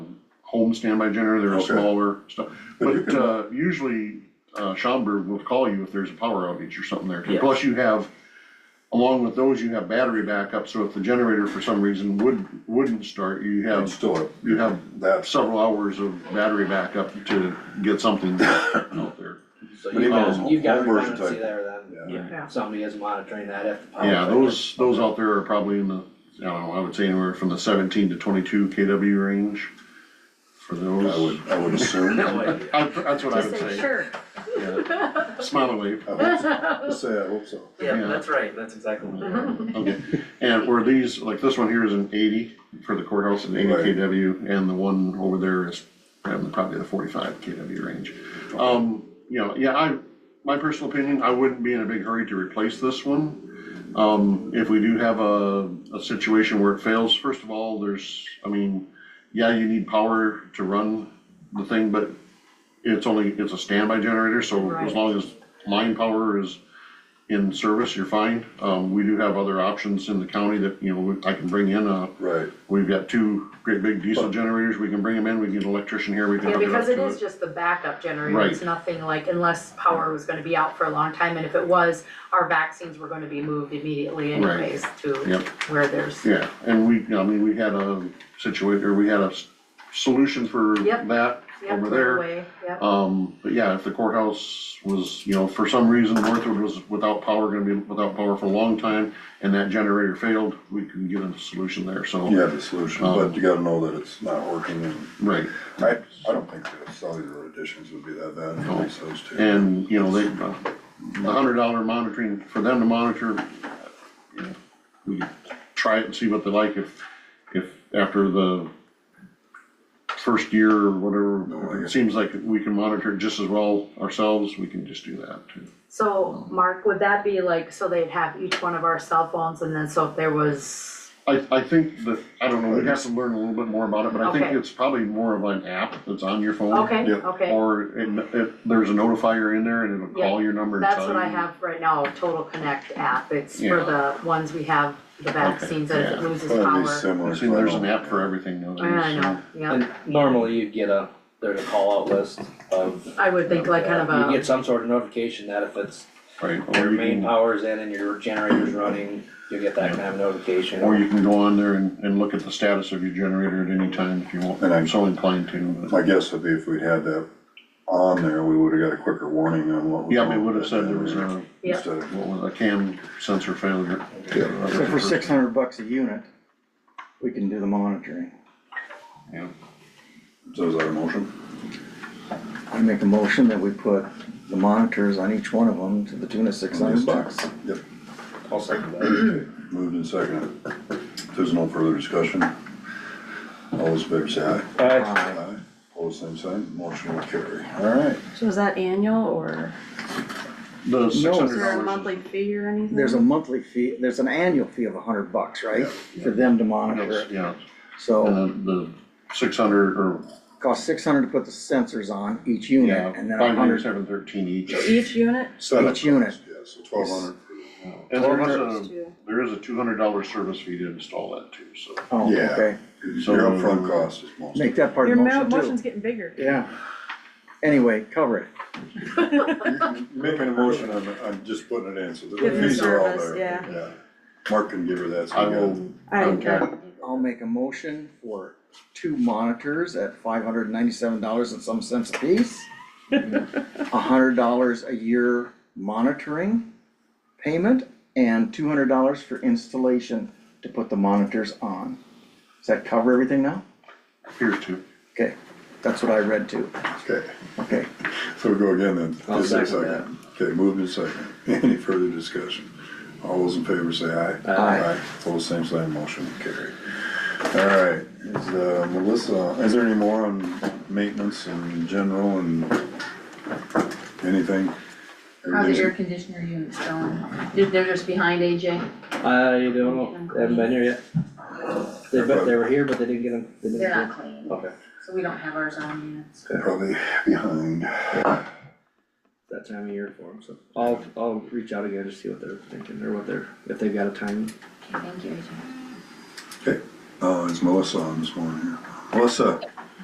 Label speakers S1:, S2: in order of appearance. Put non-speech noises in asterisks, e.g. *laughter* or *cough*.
S1: home standby generator, they're
S2: Okay.
S1: smaller stuff.
S2: But you
S1: But,
S2: can-
S1: uh, usually, uh, Schaumburg will call you if there's a power outage or something there too.
S3: Yeah.
S1: Plus you have, along with those, you have battery backup, so if the generator for some reason would, wouldn't start, you
S2: I'd
S1: have,
S2: still,
S1: you have
S2: that's,
S1: several hours of battery backup to get something out there.
S4: So
S2: But
S4: you
S2: even
S4: guys,
S2: home-
S4: you've got
S2: home version
S4: redundancy
S2: type.
S4: there then,
S2: yeah,
S3: Yeah.
S4: somebody is monitoring that if the power.
S1: Yeah,
S4: failure.
S1: those, those out there are probably in the, I don't know, I would say anywhere from the seventeen to twenty-two KW range for
S2: I
S1: those.
S2: would, I would
S1: *laughs*
S2: assume.
S4: No idea.
S1: I- That's what I
S5: Just
S1: would
S5: say,
S1: say.
S5: sure,
S1: yeah. Smile away.
S2: I hope so. Just say I hope so.
S1: Yeah.
S3: Yeah, that's right, that's exactly what we are.
S1: Okay, and were these, like this one here is an eighty for the courthouse and eighty
S2: Right.
S1: KW, and the one over there is um, probably the forty-five KW range. Um, you know, yeah, I, my personal opinion, I wouldn't be in a big hurry to replace this one. Um, if we do have a, a situation where it fails, first of all, there's, I mean, yeah, you need power to run the thing, but it's only, it's a standby generator, so as
S5: Right.
S1: long as line power is in service, you're fine. Um, we do have other options in the county that, you know, I can bring in, uh,
S2: Right,
S1: we've got two great big diesel generators, we can bring them in, we can get an electrician here, we can
S5: yeah,
S1: hook it up
S5: because it
S1: to
S5: is
S1: it.
S5: just the backup generator,
S1: Right.
S5: it's nothing like, unless power was gonna be out for a long time, and if it was, our vaccines were gonna be moved immediately
S1: Right.
S5: anyways to
S1: Yep.
S5: where there's,
S1: Yeah, and we, I mean, we had a situation, or we had a s- solution for
S5: Yep.
S1: that
S5: yep,
S1: over
S5: right
S1: there.
S5: away, yep,
S1: Um, but yeah, if the courthouse was, you know, for some reason, Northwood was without power, gonna be without power for a long time, and that generator failed, we can get a solution there, so.
S2: you have the solution, but you gotta know that it's not working and
S1: Right,
S2: I, I don't think the cellular additions would be that bad, I think those two.
S1: and, you know, they, uh, the hundred dollar monitoring, for them to monitor, uh, you know, we could try it and see what they like, if, if after the first year or
S2: No, I
S1: whatever, it
S2: guess-
S1: seems like we can monitor it just as well ourselves, we can just do that too.
S5: so, Mark, would that be like, so they'd have each one of our cell phones, and then so if there was
S1: I, I think that, I don't know, we'd have to learn a little bit more about it, but I think
S5: Okay.
S1: it's probably more of an app that's on your phone.
S5: Okay,
S2: Yep.
S5: okay,
S1: Or it, it, there's a notifier in there and it'll call your number and tell
S5: that's what
S1: you.
S5: I have right now, Total Connect app, it's for
S1: Yeah.
S5: the ones we have, the vaccines, that if it
S1: yeah.
S5: loses
S2: Probably
S5: power.
S2: similar.
S1: See, there's an app for everything now.
S5: I know, yeah,
S4: And normally you get a, there's a call out list of.
S5: I would think like kind of a.
S4: You get some sort of notification that if it's,
S1: Right,
S4: your
S1: or you
S4: main
S1: can,
S4: power's in and your generator's running, you'll get that kind of notification.
S1: or you can go on there and, and look at the status of your generator at any time if you want,
S2: And I-
S1: I'm so inclined to. but-
S2: My guess would be if we'd had that on there, we would've got a quicker warning on what was.
S1: Yeah,
S2: wrong
S1: they would have
S2: with
S1: said
S2: that
S1: there was
S2: generator
S1: a,
S5: Yeah.
S2: Instead of,
S1: what was a cam sensor failure. Uh,
S6: So for six hundred bucks a unit, we can do the monitoring.
S1: Yeah.
S2: so is that a motion?
S6: I make a motion that we put the monitors on each one of them to the tune of six hundred bucks.
S2: Yep,
S4: I'll second that.
S2: moved and seconded. If there's no further discussion, all those in favor say aye.
S4: Alright,
S6: Aye.
S2: Aye. All the same sign, motion will carry. Alright,
S7: So is that annual or
S1: The six
S7: is
S1: hundred
S7: there a
S1: dollars.
S7: monthly fee or anything?
S6: There's a monthly fee, there's an annual fee of hundred bucks, right? For them to monitor it.
S1: Yeah,
S6: So
S1: and the, the six hundred or
S6: cost six hundred to put the sensors on each unit and then
S1: Five
S6: a
S1: hundred,
S6: hundred.
S1: seven thirteen each.
S7: Each unit?
S2: seven.
S6: Each unit.
S2: Yeah, so twelve hundred.
S1: And there is a,
S7: Two.
S1: there is a two hundred dollar service fee to install that too, so.
S6: Oh,
S2: Yeah.
S6: okay.
S2: Your upfront cost is most.
S6: Make that part
S7: Your
S6: of the
S7: mo-
S6: motion too.
S7: motion's getting bigger.
S6: Yeah. Anyway, cover it.
S2: Making a motion, I'm, I'm just putting it in, so the
S7: Give them
S2: fees are all
S7: service,
S2: there.
S7: yeah.
S2: Mark can give her that, so
S1: I
S2: we got-
S1: will,
S7: I,
S1: Okay.
S6: I'll make a motion for two monitors at five hundred and ninety-seven dollars and some cents apiece. A hundred dollars a year monitoring payment and two hundred dollars for installation to put the monitors on. Does that cover everything now?
S1: here too.
S6: Okay, that's what I read too.
S2: okay,
S6: Okay,
S2: so we go again then.
S4: I'll
S2: Just a
S4: second that.
S2: Okay, moved and second. *laughs* Any further discussion? All those in favor say aye.
S6: Aye.
S2: All the same sign, motion carried. All right, is, uh, Melissa, is there any more on maintenance and general and anything?
S8: How's the air
S2: Everything's-
S8: conditioner units going? They're, they're just behind AJ?
S4: I don't know, they haven't been here yet. They, but they were here, but they didn't get them, they didn't
S8: They're
S4: get
S8: not clean,
S4: Okay,
S8: so we don't have ours on yet.
S2: Probably behind.
S4: that time of year for them, so I'll, I'll reach out again to see what they're thinking or what they're, if they've got a time.
S8: Okay, thank you, AJ.
S2: Uh, it's Melissa on this morning here. Melissa,